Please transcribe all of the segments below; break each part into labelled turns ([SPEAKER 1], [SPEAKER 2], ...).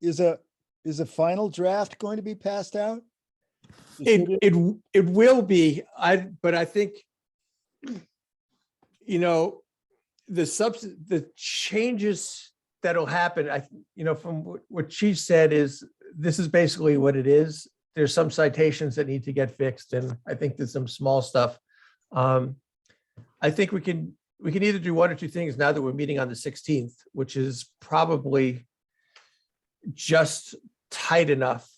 [SPEAKER 1] is a, is a final draft going to be passed out?
[SPEAKER 2] It, it, w- it will be, I, but I think, you know, the substance, the changes that'll happen, I, you know, from what- what she said is, this is basically what it is. There's some citations that need to get fixed, and I think there's some small stuff. Um, I think we can, we can either do one or two things now that we're meeting on the sixteenth, which is probably just tight enough.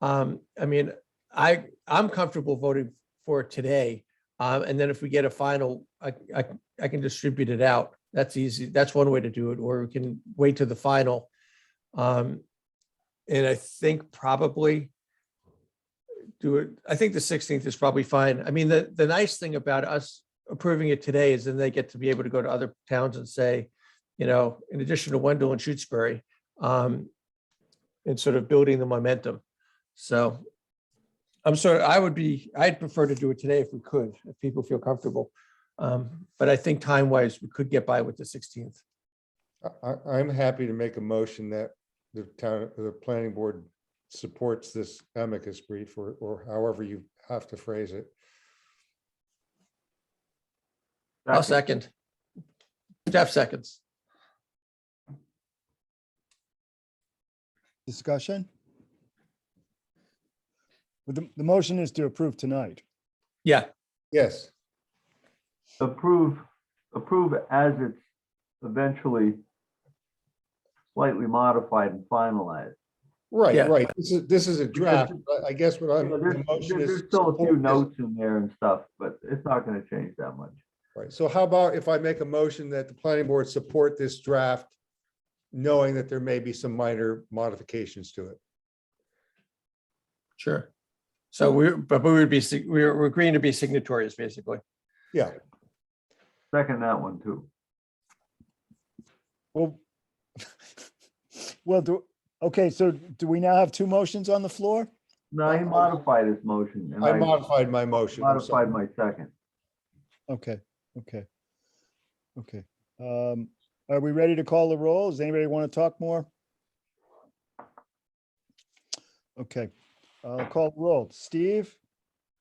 [SPEAKER 2] Um, I mean, I, I'm comfortable voting for it today. Um, and then if we get a final, I, I, I can distribute it out. That's easy. That's one way to do it, or we can wait to the final. Um, and I think probably do it, I think the sixteenth is probably fine. I mean, the, the nice thing about us approving it today is then they get to be able to go to other towns and say, you know, in addition to Wendell and Shutesbury, um, and sort of building the momentum. So I'm sorry, I would be, I'd prefer to do it today if we could, if people feel comfortable. Um, But I think time wise, we could get by with the 16th.
[SPEAKER 3] I, I- I'm happy to make a motion that the town, the planning board supports this amicus brief or, or however you have to phrase it.
[SPEAKER 2] I'll second. Jeff seconds.
[SPEAKER 1] Discussion? But The, the motion is to approve tonight.
[SPEAKER 2] Yeah,
[SPEAKER 3] Yes,
[SPEAKER 4] approve, approve as it's eventually slightly modified and finalized.
[SPEAKER 3] right,
[SPEAKER 2] Yeah.
[SPEAKER 3] right. This is, this is a draft. but I guess what I'm.
[SPEAKER 4] You know,
[SPEAKER 3] the
[SPEAKER 4] There's
[SPEAKER 3] motion
[SPEAKER 4] there's-
[SPEAKER 3] is
[SPEAKER 4] there's still a few
[SPEAKER 3] support this-
[SPEAKER 4] notes in there and stuff, but it's not going to change that much.
[SPEAKER 3] Right, so how about if I make a motion that the planning board support this draft, knowing that there may be some minor modifications to it?
[SPEAKER 2] sure. So we, but we would be, sig- we're we're agreeing to be signatories, basically.
[SPEAKER 3] Yeah,
[SPEAKER 4] Second that one too.
[SPEAKER 1] Well, well, do, okay, so do we now have two motions on the floor?
[SPEAKER 4] No, he modified his motion and
[SPEAKER 3] I
[SPEAKER 4] I
[SPEAKER 3] modified my motion. I'm sorry.
[SPEAKER 4] modified my second.
[SPEAKER 1] Okay, okay. Okay. Um, are we ready to call the roll? Does anybody want to talk more? Okay, uh, call the roll. Steve,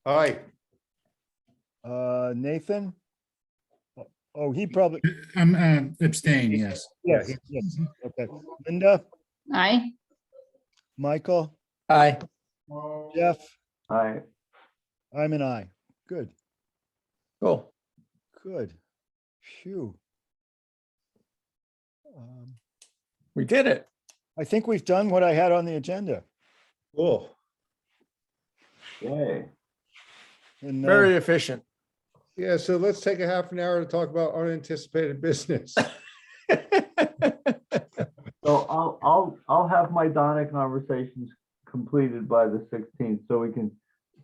[SPEAKER 3] Aye,
[SPEAKER 1] uh, Nathan? Oh, Oh, he probably,
[SPEAKER 5] I'm um, abstain, yes.
[SPEAKER 3] Yeah,
[SPEAKER 1] yes, yes, okay. Linda,
[SPEAKER 6] Aye.
[SPEAKER 1] Michael,
[SPEAKER 2] Aye,
[SPEAKER 1] Jeff,
[SPEAKER 4] I,
[SPEAKER 1] I'm an I. Good,
[SPEAKER 2] cool.
[SPEAKER 1] good. Phew. Um,
[SPEAKER 2] We did it.
[SPEAKER 1] I think we've done what I had on the agenda.
[SPEAKER 3] cool.
[SPEAKER 4] yay.
[SPEAKER 1] and, uh,
[SPEAKER 2] Very efficient.
[SPEAKER 3] Yeah, so let's take a half an hour to talk about unanticipated business.
[SPEAKER 4] So I'll, I'll, I'll have my Donna conversations completed by the 16th, so we can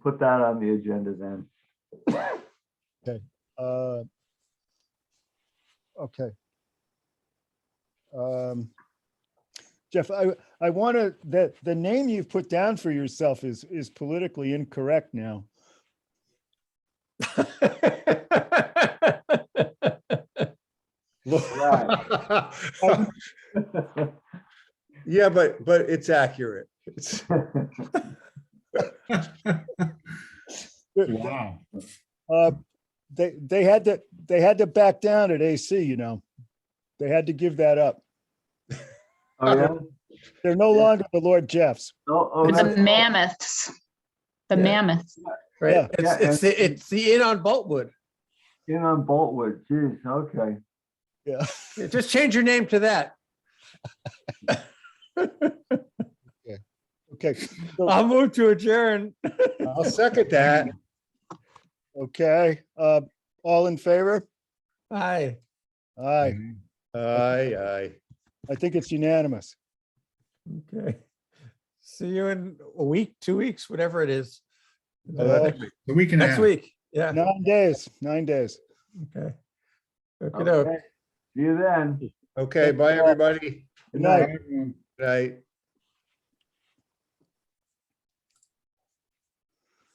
[SPEAKER 4] put that on the agenda then.
[SPEAKER 1] Uh Okay. Um Jeff, I, I want to, that, the name you've put down for yourself is, is politically incorrect now.
[SPEAKER 3] Yeah, but, but it's accurate. It's,
[SPEAKER 1] Uh,
[SPEAKER 5] Wow.
[SPEAKER 1] They, they had to, they had to back down at AC, you know. They had to give that up.
[SPEAKER 4] Oh, yeah?
[SPEAKER 1] They're no
[SPEAKER 4] Yeah.
[SPEAKER 1] longer the Lord Jeffs.
[SPEAKER 4] Oh, oh,
[SPEAKER 6] The
[SPEAKER 4] that's-
[SPEAKER 6] mammoths. The
[SPEAKER 2] Yeah.
[SPEAKER 6] mammoths.
[SPEAKER 2] Right?
[SPEAKER 1] Yeah.
[SPEAKER 2] It's, it's, the- it's the inn on Boltwood.
[SPEAKER 4] In on Boltwood, geez, okay.
[SPEAKER 1] Yeah.
[SPEAKER 2] Just change your name to that.
[SPEAKER 1] Okay. so-
[SPEAKER 2] I'll move to adjourn.
[SPEAKER 3] I'll second that.
[SPEAKER 1] Okay. Uh All in favor?
[SPEAKER 2] Aye.
[SPEAKER 1] Aye.
[SPEAKER 3] Aye, aye.
[SPEAKER 1] I think it's unanimous.
[SPEAKER 2] Okay. See you in a week, two weeks, whatever it is.
[SPEAKER 3] Oh, that-
[SPEAKER 2] Next week.
[SPEAKER 5] The weekend.
[SPEAKER 2] Next week. Yeah.
[SPEAKER 1] Nine days, nine days.
[SPEAKER 2] Okay. Okey-doke.
[SPEAKER 4] Oh, Okay. See you then.
[SPEAKER 3] Okay, bye, everybody.
[SPEAKER 1] Good night.
[SPEAKER 3] Good Night.